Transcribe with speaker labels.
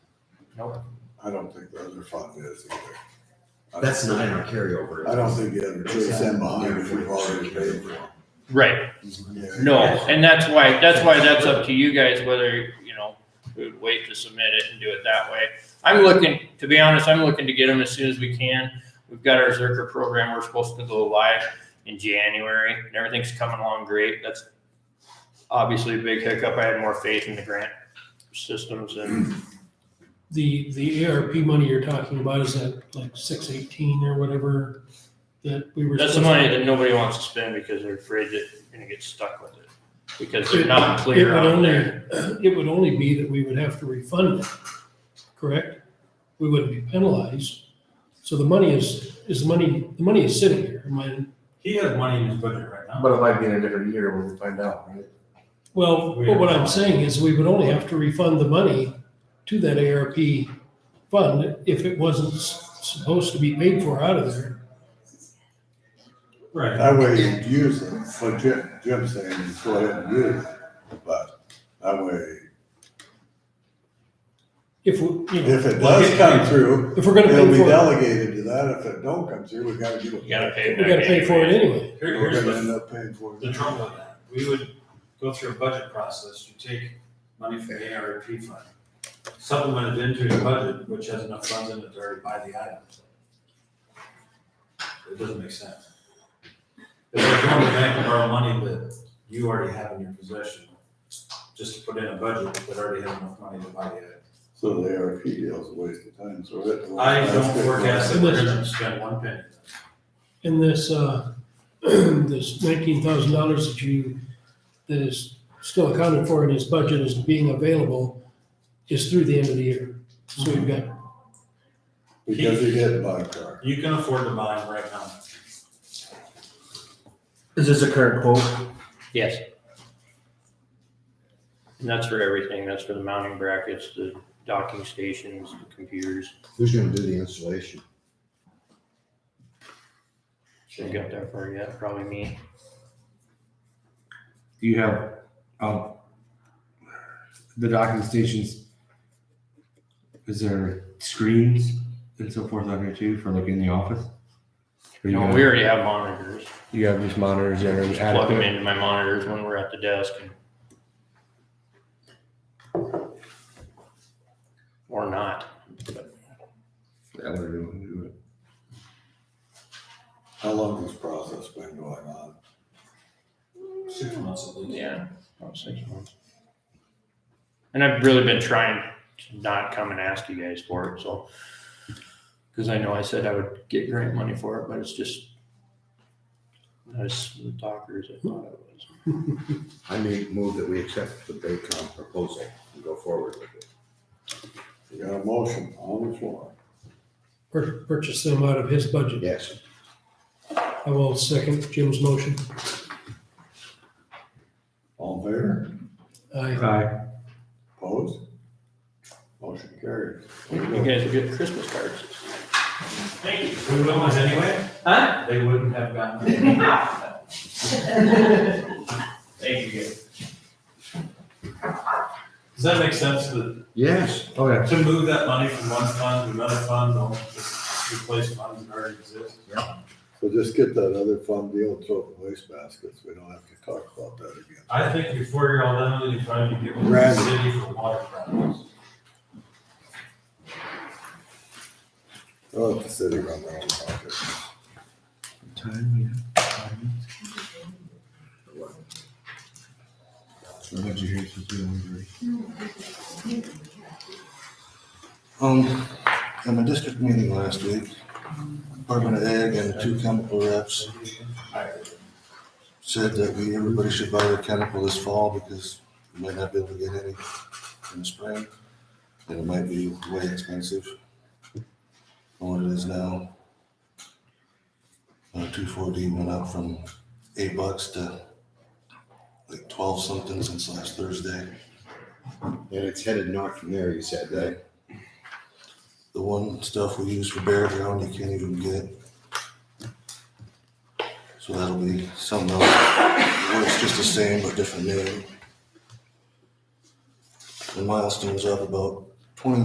Speaker 1: Nope.
Speaker 2: I don't think the other fund is either. I don't-
Speaker 3: That's not in our carryover.
Speaker 2: I don't think you have to send behind if you've already paid for it.
Speaker 4: Right,
Speaker 2: Yeah.
Speaker 4: no, and that's why, that's why that's up to you guys whether, you know, we would wait to submit it and do it that way. I'm looking, to be honest, I'm looking to get them as soon as we can. We've got our Zerker program, we're supposed to go live in January, and everything's coming along great. That's obviously a big hiccup. I had more faith in the grant systems and,
Speaker 5: The, the ARP money you're talking about, is that like six eighteen or whatever that we were?
Speaker 4: that's the
Speaker 5: supposed
Speaker 4: money
Speaker 5: to-
Speaker 4: that nobody wants to spend because they're afraid that you're gonna get stuck with it. Because they're not
Speaker 5: It
Speaker 4: clear
Speaker 5: would
Speaker 4: on
Speaker 5: only-
Speaker 4: there.
Speaker 5: It would only be that we would have to refund it, correct? We wouldn't be penalized. So the money is, is the money, the money is sitting here. Am I-
Speaker 1: He has money in his budget right now.
Speaker 6: But it might be in a different year when we find out, right?
Speaker 5: Well, but what I'm saying is we would only have to refund the money to that ARP fund if it wasn't s- supposed to be paid for out of there.
Speaker 1: Right.
Speaker 2: That way you use it, what Jim, Jim's saying is go ahead and use it, but that way,
Speaker 5: If, we- you know,
Speaker 2: if it does come through,
Speaker 5: if we're gonna
Speaker 2: it'll
Speaker 5: pay
Speaker 2: be
Speaker 5: for it,
Speaker 2: delegated to that. If it don't come through, we gotta give it.
Speaker 4: You gotta
Speaker 2: back.
Speaker 4: pay.
Speaker 5: we gotta pay for it anyway.
Speaker 1: Here-
Speaker 2: We're
Speaker 1: here's
Speaker 2: gonna
Speaker 1: the,
Speaker 2: end up paying for
Speaker 1: the
Speaker 2: it.
Speaker 1: trouble with that. We would go through a budget process. You take money from the ARP fund, supplement it into your budget, which has enough funds in it to already buy the items. It doesn't make sense. If you're going to the bank and borrow money that you already have in your possession, just to put in a budget that already has enough money to buy the item.
Speaker 2: So the ARP deal's a waste of time, so that.
Speaker 1: I
Speaker 2: that's
Speaker 1: don't
Speaker 2: good.
Speaker 1: forecast that we're gonna spend one penny.
Speaker 5: And this, uh, this nineteen thousand dollars that you, that is still accounted for in his budget as being available is through the end of the year. So we've got,
Speaker 2: Because you didn't buy a car.
Speaker 1: You can afford to buy them right now.
Speaker 6: Is this a current quote?
Speaker 4: Yes. And that's for everything. That's for the mounting brackets, the docking stations, the computers.
Speaker 3: Who's gonna do the installation?
Speaker 4: Shouldn't get that far yet, probably me.
Speaker 7: Do you have, um, the docking stations? Is there screens and so forth on here too for like in the office? Or you
Speaker 4: You know,
Speaker 7: have-
Speaker 4: we already have monitors.
Speaker 7: You have just monitors that are
Speaker 4: Plug them
Speaker 7: adequate?
Speaker 4: into my monitors when we're at the desk and or not.
Speaker 7: That would really do it.
Speaker 2: How long has this process been going on?
Speaker 1: Six months at least.
Speaker 4: Yeah. About six months. And I've really been trying to not come and ask you guys for it, so. Cause I know I said I would get grant money for it, but it's just. Not as smooth talker as I thought it was.
Speaker 3: I may move that we accept the Baycom proposal and go forward with it.
Speaker 2: You got a motion on the floor.
Speaker 5: pur- purchased them out of his budget.
Speaker 3: Yes.
Speaker 5: I will second Jim's motion.
Speaker 2: All in favor?
Speaker 5: I,
Speaker 7: Aye.
Speaker 2: Opposed? Motion carries. There
Speaker 4: You
Speaker 2: you go.
Speaker 4: guys will get Christmas cards.
Speaker 1: Thank you. We would almost anyway. Huh? They wouldn't have gotten. Thank you. Does that make sense to,
Speaker 3: Yes.
Speaker 7: Oh, yeah.
Speaker 1: to move that money from one fund to another fund, or just replace funds that already exist?
Speaker 2: So just get that other fund deal, and throw it in the waste baskets. We don't have to talk about that again.
Speaker 1: I think before you're all done, with it, you probably need to get with the
Speaker 2: Right.
Speaker 1: city for water problems.
Speaker 2: I'll let the city run their own pocket.
Speaker 7: Time, yeah. Time. So I bet you hear it's just doing laundry.
Speaker 2: Um, in my district meeting last week, Department of Ag and two chemical reps said that we, everybody should buy their chemical this fall because we might not be able to get any in the spring. And it might be way expensive than what it is now. Uh, two forty went up from eight bucks to like twelve something since last Thursday.
Speaker 3: And it's headed north from there, you said, right?
Speaker 2: The one stuff we use for bear ground, you can't even get. So that'll be something else, where it's just the same but different name. The milestone's up about